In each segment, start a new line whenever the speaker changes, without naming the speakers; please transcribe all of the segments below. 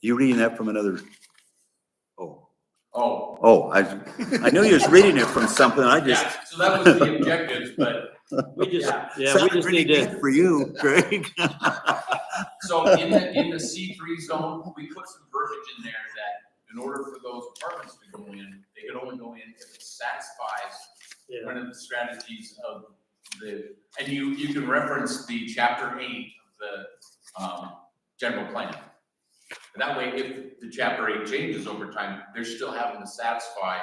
You reading that from another? Oh,
Oh.
oh, I, I knew you was reading it from something. I just.
Yeah, so that was the objectives, but,
We just,
Yeah.
yeah, we
Sounded
just
pretty
need to,
good For you, Greg.
so in the, in the C three zone, we put some verbiage in there that in order for those apartments to go in, they could only go in if it satisfies
yeah,
one of the strategies of the, and you, you can reference the chapter eight of the, um, general plan. And That way, if the chapter eight changes over time, they're still having to satisfy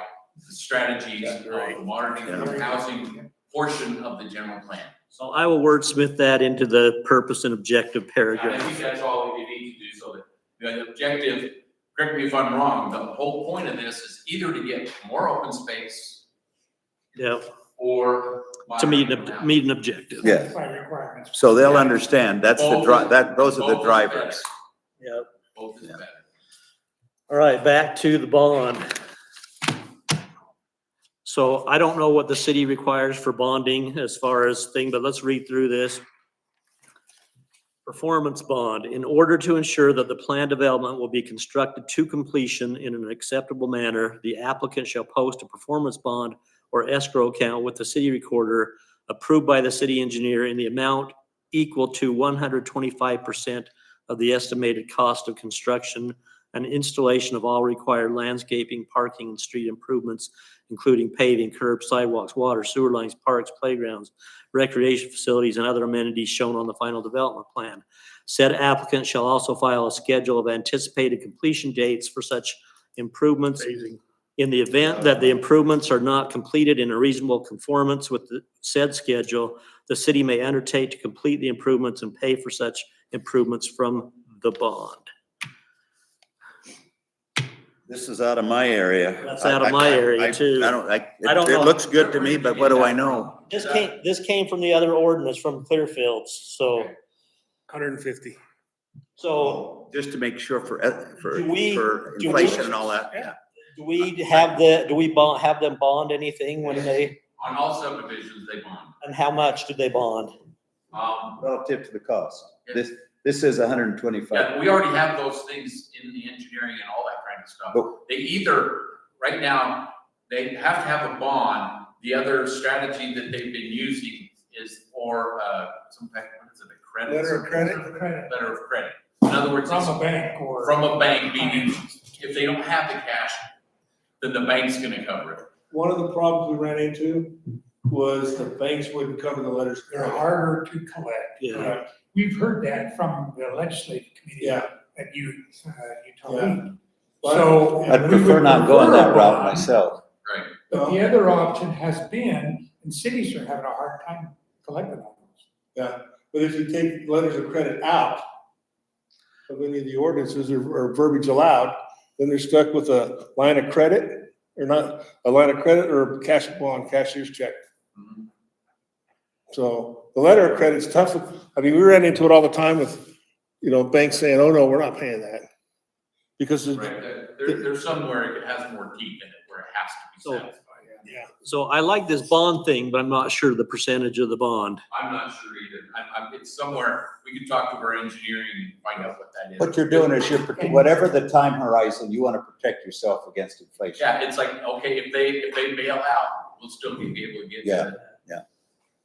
the strategies of the modern income housing portion of the general plan.
so I will wordsmith that into the purpose and objective
I
paragraph.
think that's all you need to do, so that, the objective, correct me if I'm wrong, the whole point of this is either to get more open space
Yeah,
or.
to meet
moderate
an,
income
ob-
housing.
meet an objective.
Yeah,
by requirements.
so they'll understand. That's the
Oh.
dri, that, those are the
Both is
drivers.
Yeah,
better. Both is
Yeah.
better.
all right, back to the bond. So I don't know what the city requires for bonding as far as thing, but let's read through this. Performance bond, in order to ensure that the plan development will be constructed to completion in an acceptable manner, the applicant shall post a performance bond or escrow account with the city recorder approved by the city engineer in the amount equal to one hundred twenty-five percent of the estimated cost of construction and installation of all required landscaping, parking, and street improvements, including paving, curbs, sidewalks, water, sewer lines, parks, playgrounds, recreation facilities, and other amenities shown on the final development plan. Said applicant shall also file a schedule of anticipated completion dates for such improvements. In the event that the improvements are not completed in a reasonable conformance with the said schedule, the city may undertake to complete the improvements and pay for such improvements from the bond.
This is out of my area.
That's out of my
I- I-
area,
I-
too.
I don't, I,
I don't
it,
know.
it looks good to me, but what do I know?
This came, this came from the other ordinance from Clearfields, so,
Okay.
Hundred and fifty.
so
Just to make sure for, eth- for,
Do we-
for
do we-
inflation and all that.
do we have the, do we bond, have them bond anything when they,
On all subdivisions, they bond.
and how much do they bond?
Um,
Relative to the cost.
Yeah.
This, this is hundred and
yeah,
twenty-five.
we already have those things in the engineering and all that kind of stuff.
But-
They either, right now, they have to have a bond. The other strategy that they've been using is for, uh, some type, what is it, a credit?
Letter of credit? Credit.
Letter of credit. In other words, it's
From a bank or.
from a bank, meaning if they don't have the cash, then the bank's gonna cover it.
One of the problems we ran into was the banks wouldn't cover the letters. of
They're
credit.
harder to collect.
Yeah,
We've heard that from the legislative committee.
Yeah.
That you, uh, you told me.
But-
So.
I'd
we
I'd
would
prefer not going
prefer a
that route
bond,
myself.
But the other option has been, and cities are having a hard time collecting on those.
But if you take letters of credit out of any of the ordinances or, or verbiage allowed, then they're stuck with a line of credit or not, a line of credit or a cash bond, cashier's check.
Mm-hmm.
So the letter of credit's tough. I mean, we ran into it all the time with, you know, banks saying, oh, no, we're not paying that. Because of-
Right, there, there- there's somewhere it has more teeth in it where it has to
So-
be satisfied.
so I like this bond thing, but I'm not sure the percentage of the bond.
I'm not sure either. I'm, I'm, it's somewhere, we could talk to our engineering and find out what that is.
What you're doing is you're, prote- whatever the time horizon, you want to protect yourself against inflation.
Yeah, it's like, okay, if they, if they bail out, we'll still be able to get.
Yeah,
to-
yeah.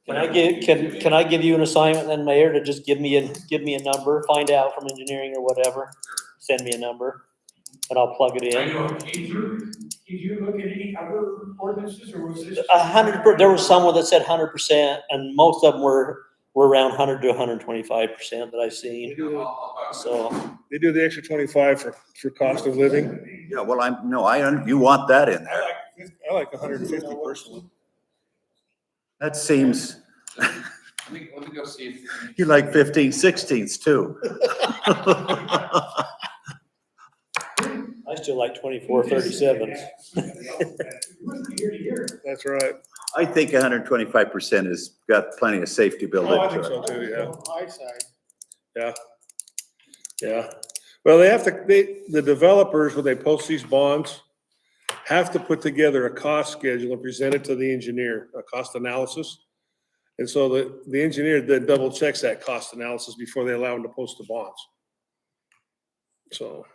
Can I give, can, can I give you an assignment then, Mayor, to just give me a, give me a number, find out from engineering or whatever? Send me a number and I'll plug it
I
in.
know, I'm eager.
Did you look at any other ordinances or was this?
A hundred, per- there was someone that said hundred percent and most of them were, were around hundred to hundred and twenty-five percent that I've seen.
They
I'll-
do
I'll talk to
So,
they do the extra twenty-five for, for cost of living.
Yeah, well, I'm, no, I, un- you want that in
I
there.
like, fif- I like hundred and fifty personally.
That seems,
Let me, let me go see if.
you like fifteen sixteenths too.
I still like twenty-four thirty-sevens.
Wasn't year to year.
That's right.
I think hundred and twenty-five percent has got plenty of safety built
Oh, I
into
think
it.
so too, yeah,
High side.
yeah. Well, they have to, they, the developers, when they post these bonds, have to put together a cost schedule and present it to the engineer, a cost analysis. And so the, the engineer then double checks that cost analysis before they allow them to post the bonds. So.